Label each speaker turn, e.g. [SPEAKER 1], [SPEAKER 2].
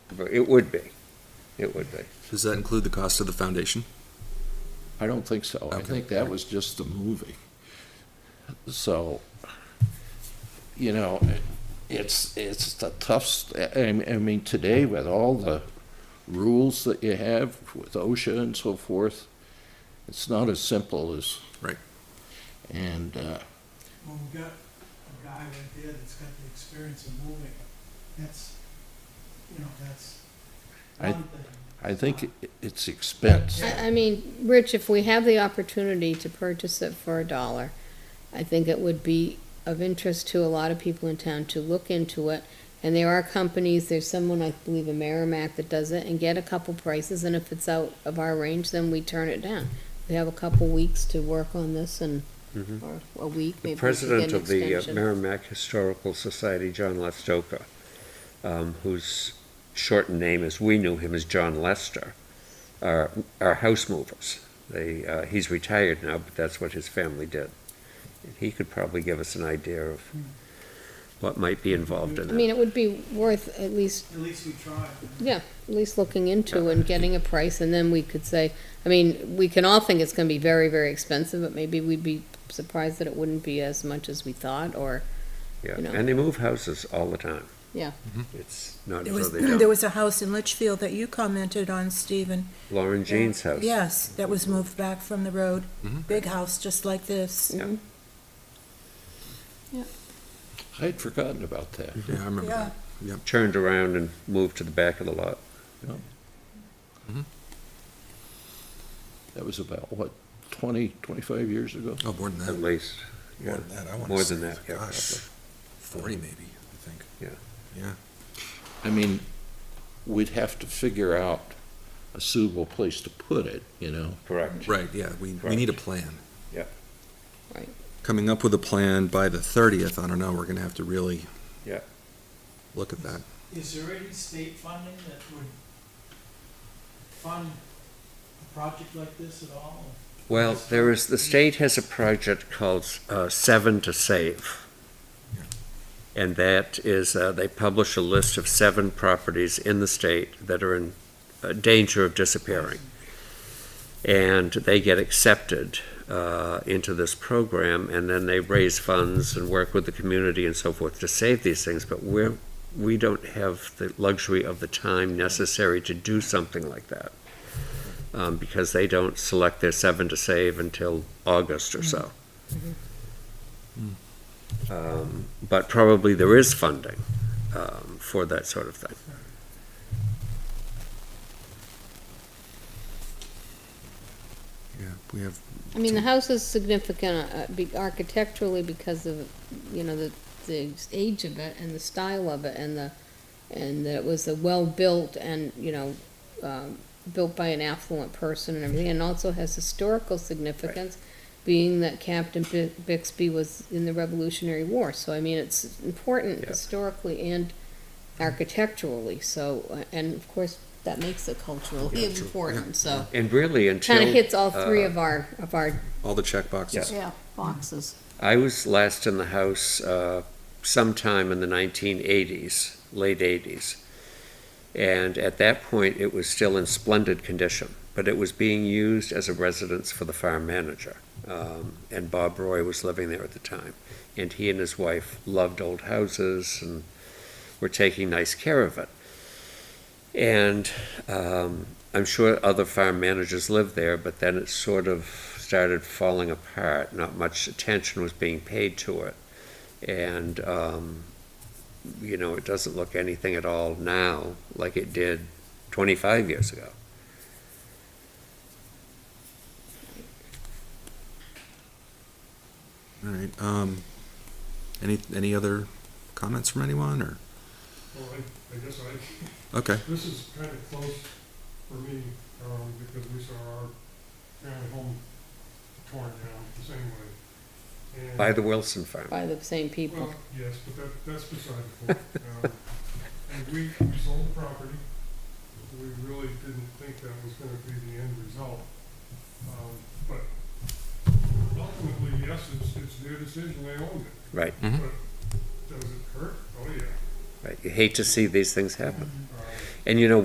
[SPEAKER 1] It would be. It would be.
[SPEAKER 2] Does that include the cost of the foundation?
[SPEAKER 3] I don't think so. I
[SPEAKER 2] Okay.
[SPEAKER 3] think that was just the movie. So, you know, it's, it's a tough, s- I, I mean, today with all the rules that you have with OSHA and so forth, it's not as simple as.
[SPEAKER 2] Right.
[SPEAKER 3] And, uh,
[SPEAKER 4] Well, we've got a guy right there that's got the experience of moving. That's, you know, that's
[SPEAKER 3] I-
[SPEAKER 4] one thing.
[SPEAKER 3] I think it- it's expense.
[SPEAKER 5] I, I mean, Rich, if we have the opportunity to purchase it for a dollar, I think it would be of interest to a lot of people in town to look into it. And there are companies, there's someone, I believe, in Merrimack that does it, and get a couple prices, and if it's out of our range, then we turn it down. We have a couple weeks to work on this and, or a week,
[SPEAKER 1] Mm-hmm. The
[SPEAKER 5] maybe we should get
[SPEAKER 1] president
[SPEAKER 5] an
[SPEAKER 1] of the uh,
[SPEAKER 5] extension.
[SPEAKER 1] Merrimack Historical Society, John Lestoka, um, whose shortened name, as we knew him, is John Lester, are, are house movers. They, uh, he's retired now, but that's what his family did. And He could probably give us an idea of what might be involved in
[SPEAKER 5] Hmm. I
[SPEAKER 1] that.
[SPEAKER 5] mean, it would be worth at least
[SPEAKER 4] At least we tried.
[SPEAKER 5] Yeah, at least looking into and getting a price, and then we could say, I mean, we can all think it's gonna be very, very expensive, but maybe we'd be surprised that it wouldn't be as much as we thought, or,
[SPEAKER 1] Yeah,
[SPEAKER 5] you know.
[SPEAKER 1] and they move houses all the time.
[SPEAKER 5] yeah.
[SPEAKER 1] It's not
[SPEAKER 6] Mm-hmm. There
[SPEAKER 1] as though
[SPEAKER 6] was,
[SPEAKER 1] they don't.
[SPEAKER 6] there was a house in Litchfield that you commented on, Stephen.
[SPEAKER 1] Lauren Jean's house.
[SPEAKER 6] Yes, that was moved back from the road.
[SPEAKER 2] Mhm.
[SPEAKER 6] Big house, just like this.
[SPEAKER 1] Yeah.
[SPEAKER 3] I'd forgotten about that.
[SPEAKER 1] Mm-hmm.
[SPEAKER 2] Yeah, I remember
[SPEAKER 6] Yeah,
[SPEAKER 2] that.
[SPEAKER 1] Turned around and moved to the back of the lot.
[SPEAKER 3] That was about, what, 20, 25 years ago?
[SPEAKER 2] Oh, more than
[SPEAKER 1] At
[SPEAKER 2] that.
[SPEAKER 1] least,
[SPEAKER 2] More than that. I want
[SPEAKER 1] More
[SPEAKER 2] to say,
[SPEAKER 1] than that, yeah,
[SPEAKER 2] gosh,
[SPEAKER 1] probably.
[SPEAKER 2] forty maybe. I think.
[SPEAKER 1] Yeah.
[SPEAKER 2] Yeah.
[SPEAKER 3] I mean, we'd have to figure out a suitable place to put it, you know?
[SPEAKER 1] correct.
[SPEAKER 2] Right. Yeah. We we need a plan.
[SPEAKER 1] Yeah.
[SPEAKER 5] Right.
[SPEAKER 2] Coming up with a plan by the thirtieth. I don't know. We're gonna have to really.
[SPEAKER 1] Yeah.
[SPEAKER 2] Look at that.
[SPEAKER 4] Is there any state funding that would fund a project like this at all?
[SPEAKER 1] Well, there is, the state has a project called uh, Seven to Save. And that is, uh, they publish a list of seven properties in the state that are in uh, danger of disappearing. And they get accepted uh, into this program, and then they raise funds and work with the community and so forth to save these things. But we're, we don't have the luxury of the time necessary to do something like that um, because they don't select their seven to save until August or so. Um, but probably there is funding um, for that sort of thing.
[SPEAKER 2] Yeah. We have.
[SPEAKER 5] I mean, the house is significant uh, be- architecturally because of, you know, the, the age of it and the style of it and the, and that it was a well-built and, you know, um, built by an affluent person and everything, and also has historical significance, being that Captain Bi- Bixby was in the Revolutionary War, so I mean, it's important
[SPEAKER 1] Yeah.
[SPEAKER 5] historically and architecturally, so, uh, and of course, that makes it culturally important, so.
[SPEAKER 1] And really, until
[SPEAKER 5] Kind of hits all three
[SPEAKER 1] uh,
[SPEAKER 5] of our, of our
[SPEAKER 2] All the check boxes.
[SPEAKER 5] yeah, boxes.
[SPEAKER 1] I was last in the house uh, sometime in the 1980s, late 80s. And at that point, it was still in splendid condition, but it was being used as a residence for the farm manager. Um, and Bob Roy was living there at the time. And he and his wife loved old houses and were taking nice care of it. And um, I'm sure other farm managers lived there, but then it sort of started falling apart. Not much attention was being paid to it. And, um, you know, it doesn't look anything at all now like it did 25 years ago.
[SPEAKER 2] All right. Um. Any any other comments from anyone or?
[SPEAKER 7] Well, I, I guess I,
[SPEAKER 2] Okay.
[SPEAKER 7] this is kind of close for me, um, because we saw our family home torn down the same way. And-
[SPEAKER 1] By the Wilson farm.
[SPEAKER 5] by the same people.
[SPEAKER 7] Well, yes, but that, that's beside the point. Um, And we, we sold the property. We really didn't think that was gonna be the end result. Um, but ultimately, yes, it's, it's their decision, they owned it.
[SPEAKER 1] Right.
[SPEAKER 2] Mhm.
[SPEAKER 7] But does it hurt? Oh, yeah.
[SPEAKER 1] right. You hate to see these things happen.
[SPEAKER 7] Um,
[SPEAKER 1] And you know,